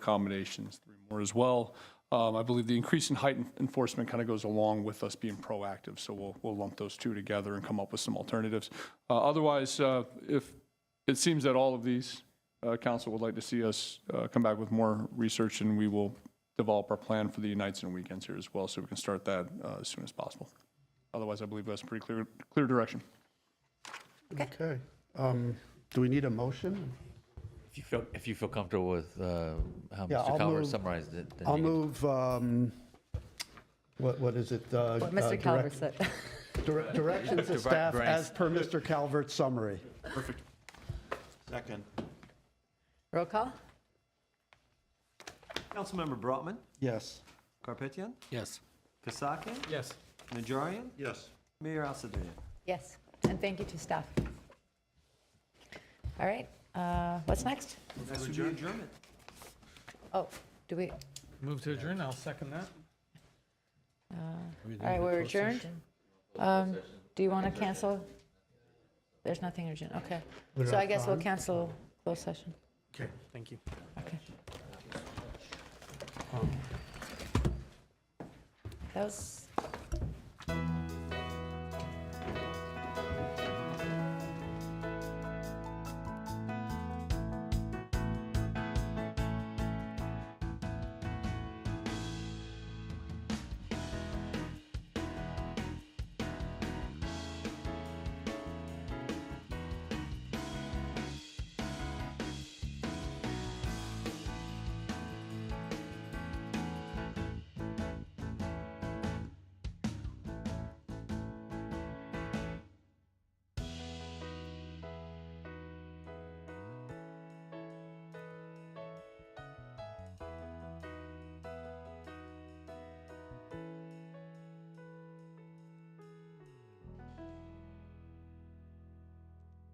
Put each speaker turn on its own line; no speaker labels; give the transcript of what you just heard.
accommodations, three more as well. Um, I believe the increase in height en- enforcement kind of goes along with us being proactive, so we'll, we'll lump those two together and come up with some alternatives. Uh, Otherwise, uh, if, it seems that all of these, uh, council would like to see us uh, come back with more research, and we will develop our plan for the nights and weekends here as well, so we can start that uh, as soon as possible. Otherwise, I believe that's pretty clear, clear direction.
Okay. Um, Do we need a motion?
If you feel, if you feel comfortable with uh, how
Yeah, I'll
Mr. Calver
move-
summarized it, then
I'll
you can-
move, um, what, what is it? Uh,
What
uh,
Mr.
direct-
Calvert said.
dire- Directions to
Direct-
staff
direct-
as per Mr. Calvert's summary.
Second.
Roll call?
Councilmember Brotman,
Yes.
Karpetian,
Yes.
Kasakian,
Yes.
Najarian,
Yes.
Mayor Alcidian.
Yes, and thank you to staff. All right, uh, what's next?
That's to be adjournment.
Oh, do we,
Move to adjourn, I'll second that.
all right, we're adjourned? Um, Do you want to cancel? There's nothing urgent, okay. So I guess we'll cancel closed session.
Okay, thank you. Um.
Okay. That was.